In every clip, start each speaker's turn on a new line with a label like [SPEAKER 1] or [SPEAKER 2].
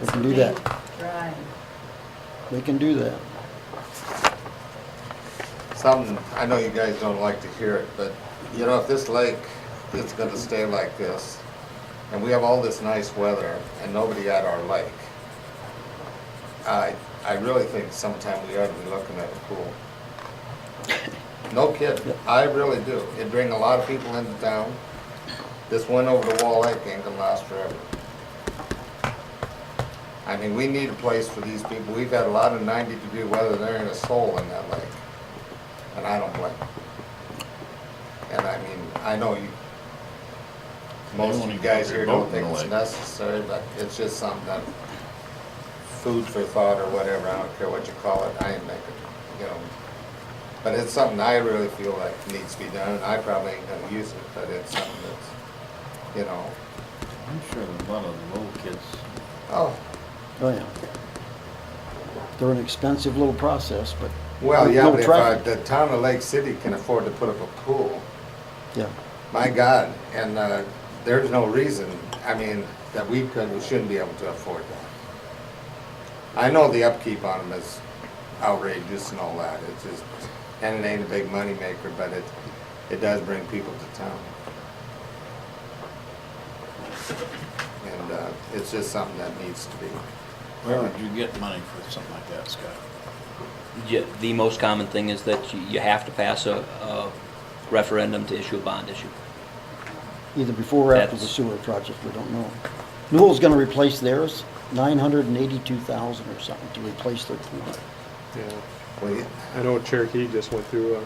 [SPEAKER 1] We can do that.
[SPEAKER 2] Right.
[SPEAKER 1] We can do that.
[SPEAKER 3] Something, I know you guys don't like to hear it, but you know, if this lake is gonna stay like this, and we have all this nice weather and nobody at our lake, I, I really think sometime we ought to be looking at a pool. No kidding, I really do. It'd bring a lot of people into town. This one over the Wall Lake ain't gonna last forever. I mean, we need a place for these people. We've had a lot of ninety degree weather, there ain't a soul in that lake. And I don't blame them. And I mean, I know you, most of you guys here don't think it's necessary, but it's just something that, food for thought or whatever, I don't care what you call it, I ain't making, you know. But it's something I really feel like needs to be done, and I probably ain't gonna use it, but it's something that's, you know,
[SPEAKER 4] I'm sure there's a lot of little kids.
[SPEAKER 3] oh,
[SPEAKER 1] Oh, yeah. They're an expensive little process, but.
[SPEAKER 3] well, yeah,
[SPEAKER 1] no
[SPEAKER 3] but if I,
[SPEAKER 1] traffic.
[SPEAKER 3] the town of Lake City can afford to put up a pool,
[SPEAKER 1] Yeah,
[SPEAKER 3] My God, and uh, there's no reason, I mean, that we couldn't, we shouldn't be able to afford that. I know the upkeep on them is outrageous and all that, it's just, and it ain't a big moneymaker, but it, it does bring people to town. And uh, it's just something that needs to be.
[SPEAKER 4] Where would you get money for something like that, Scott?
[SPEAKER 5] Yeah, The most common thing is that you- you have to pass a- a referendum to issue a bond issue.
[SPEAKER 1] either before or after the
[SPEAKER 5] That's-
[SPEAKER 1] sewer project, we don't know. Newell's gonna replace theirs, nine hundred and eighty-two thousand or something to replace their pool.
[SPEAKER 6] Yeah,
[SPEAKER 3] Well, yeah,
[SPEAKER 6] I know Cherokee just went through, uh,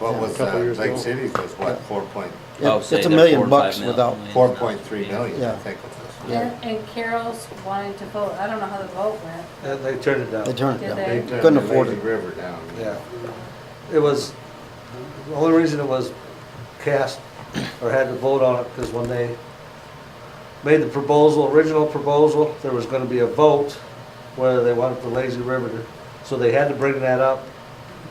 [SPEAKER 3] What
[SPEAKER 1] Yeah, a
[SPEAKER 3] was,
[SPEAKER 6] couple
[SPEAKER 3] uh,
[SPEAKER 6] years
[SPEAKER 3] Lake
[SPEAKER 6] ago.
[SPEAKER 3] City's was what, four point,
[SPEAKER 5] I would
[SPEAKER 1] It-
[SPEAKER 5] say
[SPEAKER 1] It's a
[SPEAKER 5] they're four
[SPEAKER 1] million
[SPEAKER 5] or five
[SPEAKER 1] bucks
[SPEAKER 5] mil-
[SPEAKER 1] without,
[SPEAKER 3] four point three million,
[SPEAKER 1] Yeah.
[SPEAKER 3] I think it was.
[SPEAKER 1] Yeah.
[SPEAKER 2] And and Carol's wanting to vote, I don't know how the vote went.
[SPEAKER 7] Uh, They turned it down.
[SPEAKER 1] they turned
[SPEAKER 2] Did
[SPEAKER 1] it down.
[SPEAKER 2] they?
[SPEAKER 3] They turned
[SPEAKER 1] Couldn't
[SPEAKER 3] the
[SPEAKER 1] afford
[SPEAKER 3] Lazy
[SPEAKER 1] it.
[SPEAKER 3] River down.
[SPEAKER 7] Yeah. It was, the only reason it was cast or had to vote on it, because when they made the proposal, original proposal, there was gonna be a vote whether they wanted the lazy river to, so they had to bring that up.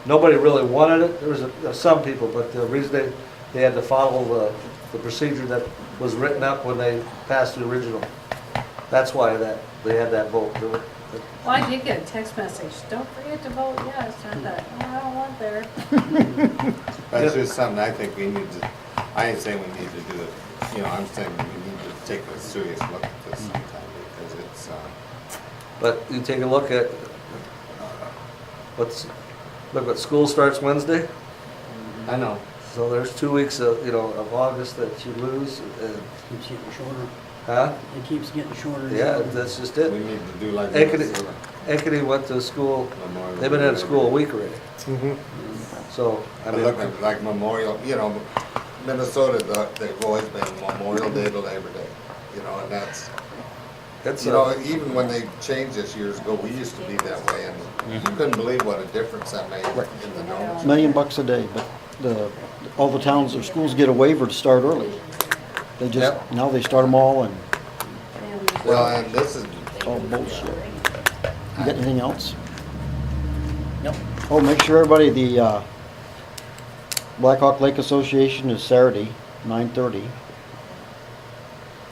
[SPEAKER 7] Nobody really wanted it, there was a- some people, but the reason they, they had to follow the, the procedure that was written up when they passed the original. That's why that, they had that vote. There were-
[SPEAKER 2] Well, I did get a text message, don't forget to vote yes, and I thought, oh, I don't want there.
[SPEAKER 3] That's just something I think we need to, I ain't saying we need to do it, you know, I'm saying we need to take a serious look at this
[SPEAKER 7] Mm-hmm.
[SPEAKER 3] sometime because it's, uh,
[SPEAKER 7] But you take a look at, what's, look, what school starts Wednesday,
[SPEAKER 3] I know.
[SPEAKER 7] so there's two weeks of, you know, of August that you lose, and,
[SPEAKER 8] Keeps getting shorter.
[SPEAKER 7] huh?
[SPEAKER 8] It keeps getting shorter.
[SPEAKER 7] Yeah, that's just
[SPEAKER 3] We
[SPEAKER 7] it.
[SPEAKER 3] need to do like.
[SPEAKER 7] Ekity,
[SPEAKER 3] Minnesota,
[SPEAKER 7] Ekity went to school,
[SPEAKER 3] Memorial
[SPEAKER 7] they've been out of school a week already,
[SPEAKER 6] mhm.
[SPEAKER 7] so, I
[SPEAKER 3] But
[SPEAKER 7] mean,
[SPEAKER 3] look at like Memorial, you know, Minnesota, the- they've always been Memorial Day to Labor Day, you know, and that's,
[SPEAKER 7] that's,
[SPEAKER 3] you know,
[SPEAKER 7] a-
[SPEAKER 3] even when they changed this years ago, we used to be that way and
[SPEAKER 7] Mm-hmm.
[SPEAKER 3] you couldn't believe what a difference that made in the knowledge.
[SPEAKER 1] Million bucks a day, but the, all the towns or schools get a waiver to start early. They just,
[SPEAKER 3] Yep.
[SPEAKER 1] now they start them all and,
[SPEAKER 2] And-
[SPEAKER 3] Well, and this is,
[SPEAKER 1] oh bullshit. You got anything else?
[SPEAKER 8] Nope.
[SPEAKER 1] Oh, make sure everybody, the uh, Black Hawk Lake Association is Saturday, 9:30.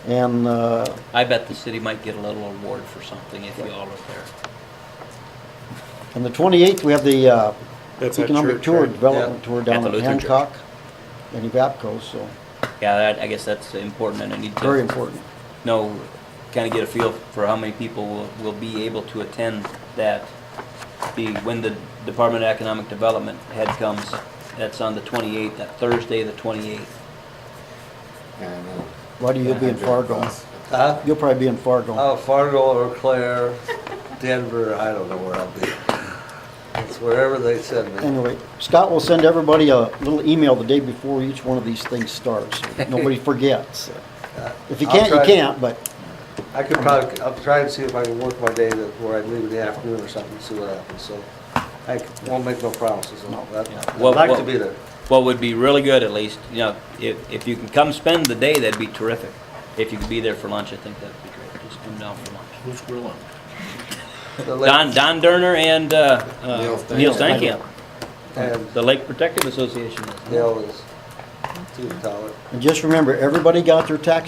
[SPEAKER 1] And uh,
[SPEAKER 5] I bet the city might get a little award for something if you all are there.
[SPEAKER 1] on the 28th, we have the uh,
[SPEAKER 6] That's that
[SPEAKER 1] Economic
[SPEAKER 6] church,
[SPEAKER 1] Tour
[SPEAKER 6] right?
[SPEAKER 1] Development Tour
[SPEAKER 5] At
[SPEAKER 1] down
[SPEAKER 5] the
[SPEAKER 1] in
[SPEAKER 5] Lutheran church.
[SPEAKER 1] Hancock and Evapco, so
[SPEAKER 5] Yeah, that- I guess that's important and I need to.
[SPEAKER 1] very important.
[SPEAKER 5] Know, kind of get a feel for how many people will, will be able to attend that. Be, when the Department of Economic Development head comes, that's on the 28th, that Thursday, the 28th.
[SPEAKER 3] and, uh,
[SPEAKER 1] Buddy, you'll be in Fargo.
[SPEAKER 7] huh?
[SPEAKER 1] You'll probably be in Fargo.
[SPEAKER 7] Oh, Fargo or Claire, Denver, I don't know where I'll be. It's wherever they send me.
[SPEAKER 1] Anyway, Scott will send everybody a little email the day before each one of these things starts. so Nobody forgets. If you
[SPEAKER 7] I'll
[SPEAKER 1] can't, you
[SPEAKER 7] try-
[SPEAKER 1] can't, but
[SPEAKER 7] I could probably, I'll try and see if I can work my day that, where I leave in the afternoon or something, see what happens, so. I won't make no promises, on that. I'd
[SPEAKER 5] Well,
[SPEAKER 7] like
[SPEAKER 5] well-
[SPEAKER 7] to be there.
[SPEAKER 5] What would be really good, at least, you know, if, if you can come spend the day, that'd be terrific. If you could be there for lunch, I think that'd be great. Just come down for lunch.
[SPEAKER 4] Who's grilling?
[SPEAKER 7] The lake-
[SPEAKER 5] Don, Don Derner and, uh, uh,
[SPEAKER 3] Neil Steinkamp.
[SPEAKER 5] Neil Steinkamp,
[SPEAKER 7] And
[SPEAKER 5] the Lake Protective Association.
[SPEAKER 7] Dale is too tolerant.
[SPEAKER 1] and just remember, everybody got their tax